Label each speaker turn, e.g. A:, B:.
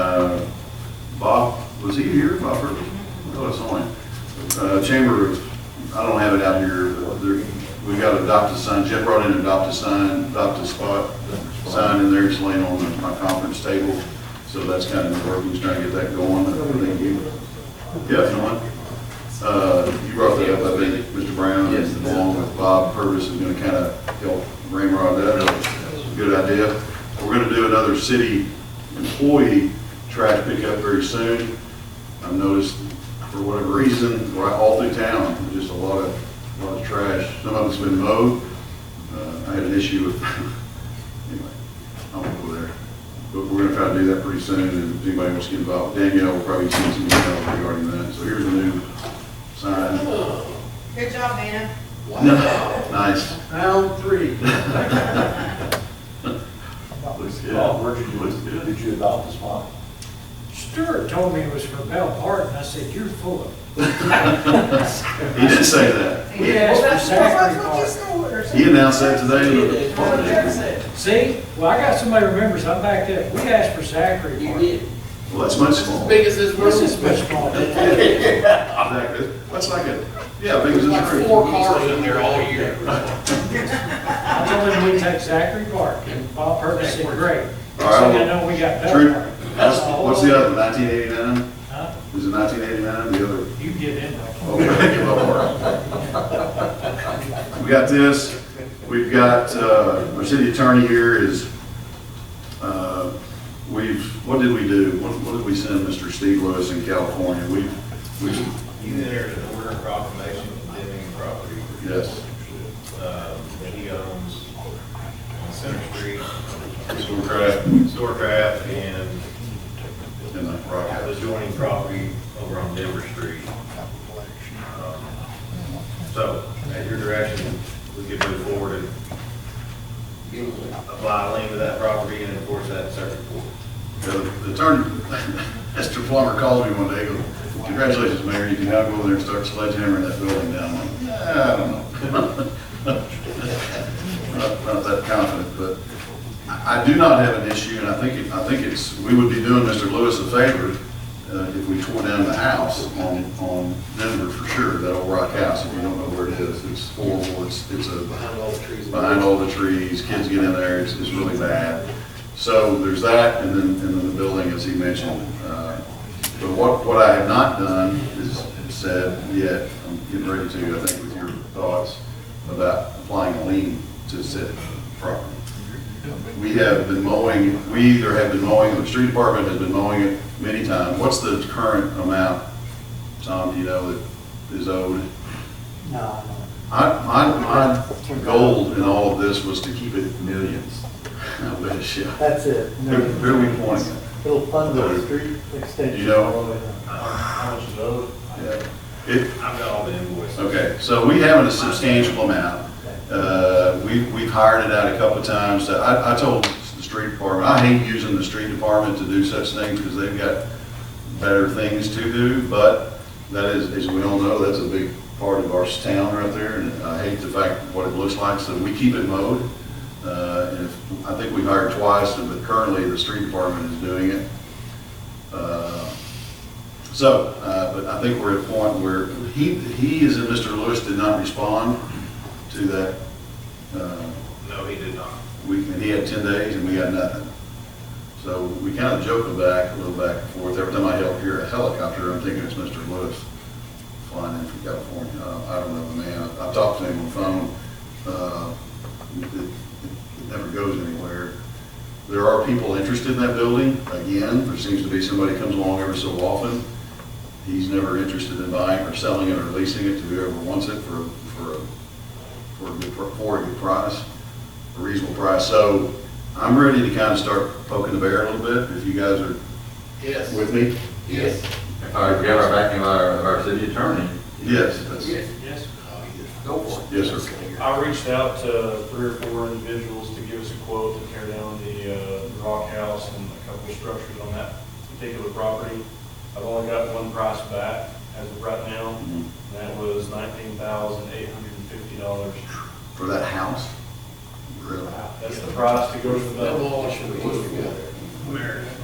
A: was he here, Uh, Bob Purvis? No, it's on. Uh, Chamber, of- I don't have it out here, but there, we got adopt a sign, Jeff brought in adopt a sign, adopt a spot, sign in there, it's laying on my conference table, so that's kind of where he's trying to get that going, I think you. Yeah, it's on. Uh, you brought that up, I think, Mr. Brown,
B: Yes.
A: along with Bob Purvis is gonna kind of help ramrod that up. Good idea. We're gonna do another city employee trash pickup very soon. I've noticed, for whatever reason, right all through town, just a lot of, lot of trash. Some of it's been mowed. Uh, I had an issue with, anyway, I won't go there. But we're gonna try to do that pretty soon, and if anybody wants to get involved, Danielle will probably send some email regarding that. So here's a new sign.
C: Good job, Dana.
A: Nice.
B: Round three.
A: Looks good.
D: Oh, where'd you do
A: Looks good.
D: it? Did you adopt the spot?
E: Stewart told me it was for Bell Park, and I said, you're full of.
A: He did say that.
E: We asked for Zachary Park.
A: He announced that today.
E: See, well, I got somebody remembers, I'm back there, we asked for Zachary Park.
A: Well, that's much smaller.
B: Biggest is
E: This is much smaller.
A: Exactly. That's like a, yeah, big as this room.
B: Four cars in there all year.
E: I told him we'd take Zachary Park, and Bob Purvis said, great. So
A: All right,
E: I know we got
A: True.
E: Bell Park.
A: That's- What's the other, nineteen eighty-nine?
E: Huh?
A: Is it nineteen eighty-nine, the other? oh,
E: You get in there.
A: Okay, give up on it. We got this, we've got, uh, our city attorney here is, uh, we've, what did we do? What, what did we send Mr. Steve Lewis in California? We, we,
F: He entered an order of proclamation condemning property
A: yes,
F: uh, that he owns on Center Street,
A: Storecraft
F: Storecraft, and
A: and the
F: the
A: Rock.
F: adjoining property over on Denver Street. Um, So, at your direction, we could move forward and apply a lien to that property and enforce that in circuit court.
A: The attorney, Mr. Plummer called me one day, goes, congratulations, Mayor, you can now go over there and start sledgehammering that building down. I'm like, "Nah, I don't know. Not not that confident, but I I do not have an issue, and I think, it- I think it's, we would be doing Mr. Lewis a favor uh, if we tore down the house on, on Denver for sure, that old rock house, if you don't know where it is, it's horrible, it's, it's a
B: Behind all the trees.
A: behind all the trees, kids get in there, it's, it's really bad. So there's that, and then, and then the building, as he mentioned. Uh, But what, what I have not done is said yet, I'm getting ready to, I think, with your thoughts about applying a lien to said property. We have been mowing, we either have been mowing, or the street department has been mowing it many times. What's the current amount, Tom, do you know, that is owed?
E: No,
A: I, my, my goal in all of this was to keep it millions. I wish, yeah.
G: That's it.
A: Who who are we pointing
G: It'll fund the street
A: at? You
G: extension.
A: know?
F: How much is owed?
A: Yeah. It,
F: I've got all the invoices.
A: Okay, so we have a substantial amount. Uh, we- We've hired it out a couple of times. So I I told the street department, I hate using the street department to do such things because they've got better things to do, but that is, as we all know, that's a big part of our town right there, and I hate the fact what it looks like, so we keep it mowed. Uh, And if- I think we've hired twice, but currently the street department is doing it. Uh, so, uh, but I think we're at a point where he, he, as in Mr. Lewis, did not respond to that. uh,
F: No, he did not.
A: We, and he had ten days and we got nothing. So we kind of joked back, a little back and forth. Every time I help hear a helicopter, I'm thinking it's Mr. Lewis flying in from California. Uh, I don't know the man. I- I talked to him on the phone. Uh, It it- it never goes anywhere. There are people interested in that building. Again, there seems to be somebody comes along every so often. He's never interested in buying or selling it or leasing it to whoever wants it for, for, a- for a good, pr- for a good price, a reasonable price. So I'm ready to kind of start poking the bear a little bit, if you guys are
B: Yes.
A: with me.
B: Yes.
H: All right, we have our backing of our, of our city attorney.
A: Yes, that's,
E: yes.
B: Go for it.
A: yes, sir.
I: I reached out to three or four individuals to give us a quote to tear down the uh, rock house and a couple of structures on that particular property. I've only got one price back as of right now, and that was nineteen thousand eight hundred and fifty dollars.
A: For that house? Really?
I: That's the price to go for the.
B: That wall should be put together.